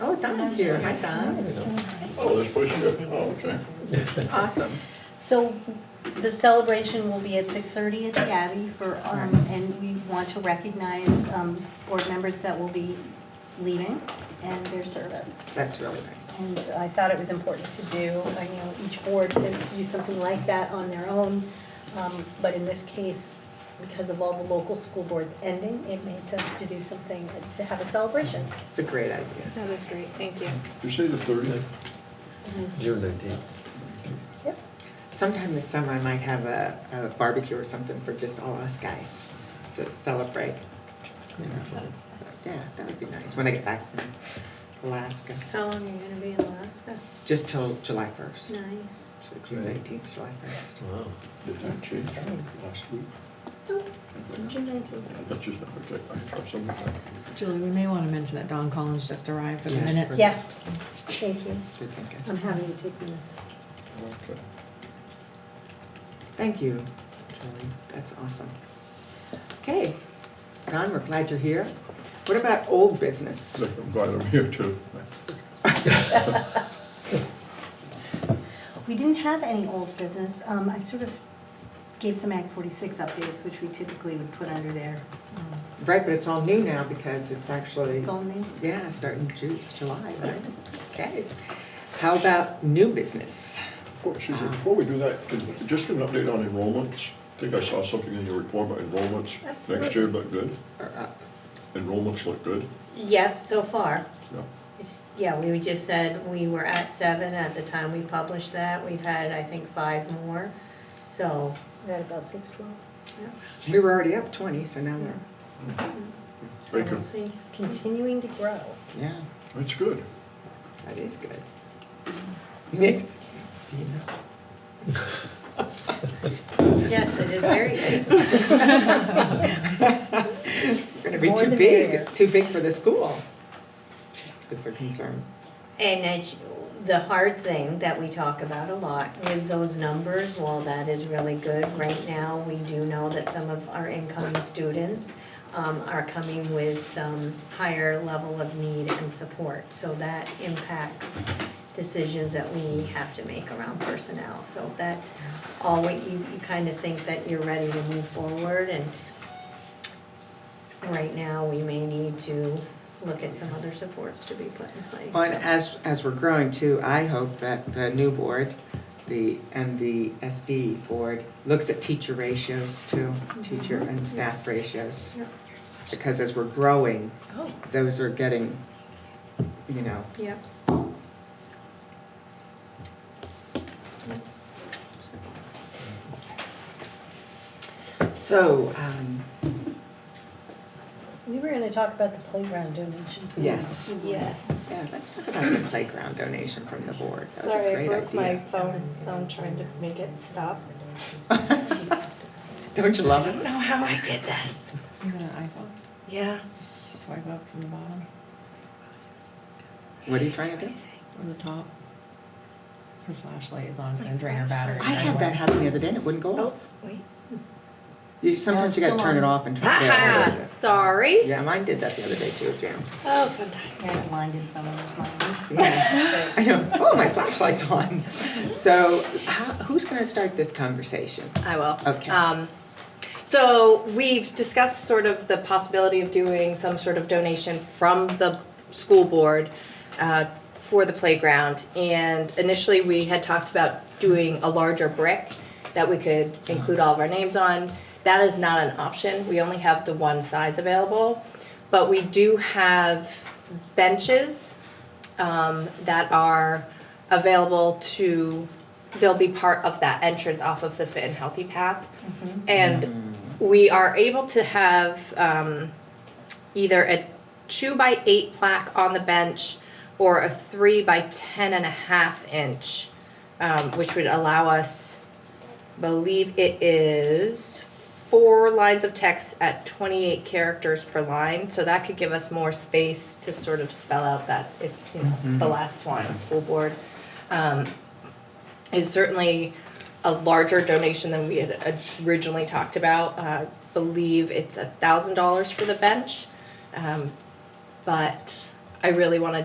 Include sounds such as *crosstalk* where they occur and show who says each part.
Speaker 1: Oh, Don's here. Hi, Don.
Speaker 2: Oh, there's place to go. Oh, okay.
Speaker 1: Awesome.
Speaker 3: *laughs* So the celebration will be at six thirty at the Abbey for, um,
Speaker 1: Nice.
Speaker 3: and we want to recognize, um, board members that will be leaving and their service.
Speaker 1: That's really nice.
Speaker 3: And I thought it was important to do, I know each board tends to do something like that on their own. Um, but in this case, because of all the local school boards ending, it made sense to do something, to have a celebration.
Speaker 1: It's a great idea.
Speaker 4: That was great, thank you.
Speaker 2: Did you say the thirtieth?
Speaker 3: Mm-hmm.
Speaker 5: June nineteenth.
Speaker 3: Yep.
Speaker 1: Sometime this summer, I might have a, a barbecue or something for just all us guys to celebrate. You know, so- Yeah, that would be nice when I get back from Alaska,
Speaker 4: How long are you gonna be in Alaska?
Speaker 1: just till July first.
Speaker 4: Nice.
Speaker 1: So June nineteenth, July first.
Speaker 5: Wow.
Speaker 2: Did that change last week?
Speaker 3: June nineteenth.
Speaker 2: That's just, okay, I have something.
Speaker 6: Julie, we may want to mention that Don Collins just arrived for the
Speaker 1: Yes.
Speaker 6: minutes.
Speaker 3: Yes, thank you.
Speaker 1: Good thinking.
Speaker 3: I'm happy to take minutes.
Speaker 2: Okay.
Speaker 1: Thank you, Julie. That's awesome. Okay, Don, we're glad you're here. What about old business?
Speaker 2: Look, I'm glad I'm here too.
Speaker 3: We didn't have any old business. Um, I sort of gave some Act 46 updates, which we typically would put under there. Um,
Speaker 1: Right, but it's all new now because it's actually.
Speaker 3: It's all new.
Speaker 1: Yeah, starting Ju- July, right? Okay. How about new business?
Speaker 2: Before, excuse me, before we do that, could- just give an update on enrollments. I think I saw something in your report about enrollments. Next year
Speaker 3: Absolutely.
Speaker 2: look good.
Speaker 1: Or, uh,
Speaker 2: Enrollments look good.
Speaker 4: Yep, so far.
Speaker 2: Yeah.
Speaker 4: It's- Yeah, we just said we were at seven at the time we published that. We've had, I think, five more, so.
Speaker 3: We're at about 612.
Speaker 4: yeah.
Speaker 1: We were already up twenty, so now we're,
Speaker 4: So
Speaker 2: Thank you.
Speaker 4: we'll see.
Speaker 3: Continuing to grow.
Speaker 1: yeah,
Speaker 2: That's good.
Speaker 1: that is good. Nick, do
Speaker 3: *laughs*
Speaker 1: you know?
Speaker 4: Yes, it is very good.
Speaker 1: We're gonna be
Speaker 3: More
Speaker 1: too
Speaker 3: the merrier.
Speaker 1: big, too big for the school. Is a concern.
Speaker 4: And it's the hard thing that we talk about a lot with those numbers, while that is really good, right now, we do know that some of our incoming students um, are coming with some higher level of need and support, so that impacts decisions that we have to make around personnel. So that's all what you, you kind of think that you're ready to move forward and right now, we may need to look at some other supports to be put in place.
Speaker 1: Well, and as, as we're growing too, I hope that the new board, the, and the SD board, looks at teacher ratios too,
Speaker 7: Mm-hmm.
Speaker 1: teacher and staff ratios.
Speaker 4: Yep.
Speaker 1: Because as we're growing,
Speaker 3: Oh.
Speaker 1: those are getting, you know,
Speaker 4: Yep.
Speaker 1: so, um,
Speaker 3: We were going to talk about the playground donation.
Speaker 1: yes.
Speaker 7: Yes.
Speaker 1: Yeah, let's talk about the playground donation from the board. That was a
Speaker 7: Sorry, I
Speaker 1: great
Speaker 7: broke my
Speaker 1: idea.
Speaker 7: phone, so I'm trying to make it stop. *laughs*
Speaker 1: Don't you love it?
Speaker 7: know how I did this.
Speaker 6: Is it an iPhone?
Speaker 7: Yeah.
Speaker 6: Just Swipe up from the bottom
Speaker 1: What are you trying to do?
Speaker 6: or the top. Her flashlight is on, it's gonna drain her battery.
Speaker 1: I had that happen the other day and it wouldn't go off.
Speaker 7: Wait.
Speaker 1: You, sometimes you gotta turn it off and turn it
Speaker 7: Ah,
Speaker 1: on.
Speaker 7: sorry.
Speaker 1: Yeah, mine did that the other day too, Jim.
Speaker 7: Oh, good times.
Speaker 3: I blinded someone with mine.
Speaker 1: Yeah, *laughs* I know. Oh, my flashlight's on. So, how, who's going to start this conversation?
Speaker 7: I will.
Speaker 1: Okay.
Speaker 7: Um, so we've discussed sort of the possibility of doing some sort of donation from the school board uh, for the playground. And initially, we had talked about doing a larger brick that we could include all of our names on. That is not an option. We only have the one size available. But we do have benches um, that are available to, they'll be part of that entrance off of the Fit and Healthy Path. And we are able to have um, either a two by eight plaque on the bench or a three by ten and a half inch, um, which would allow us, believe it is four lines of text at twenty-eight characters per line, so that could give us more space to sort of spell out that it's, you know, the last one, school board. Um, is certainly a larger donation than we had originally talked about. Uh, I believe it's a thousand dollars for the bench. Um, but I really wanna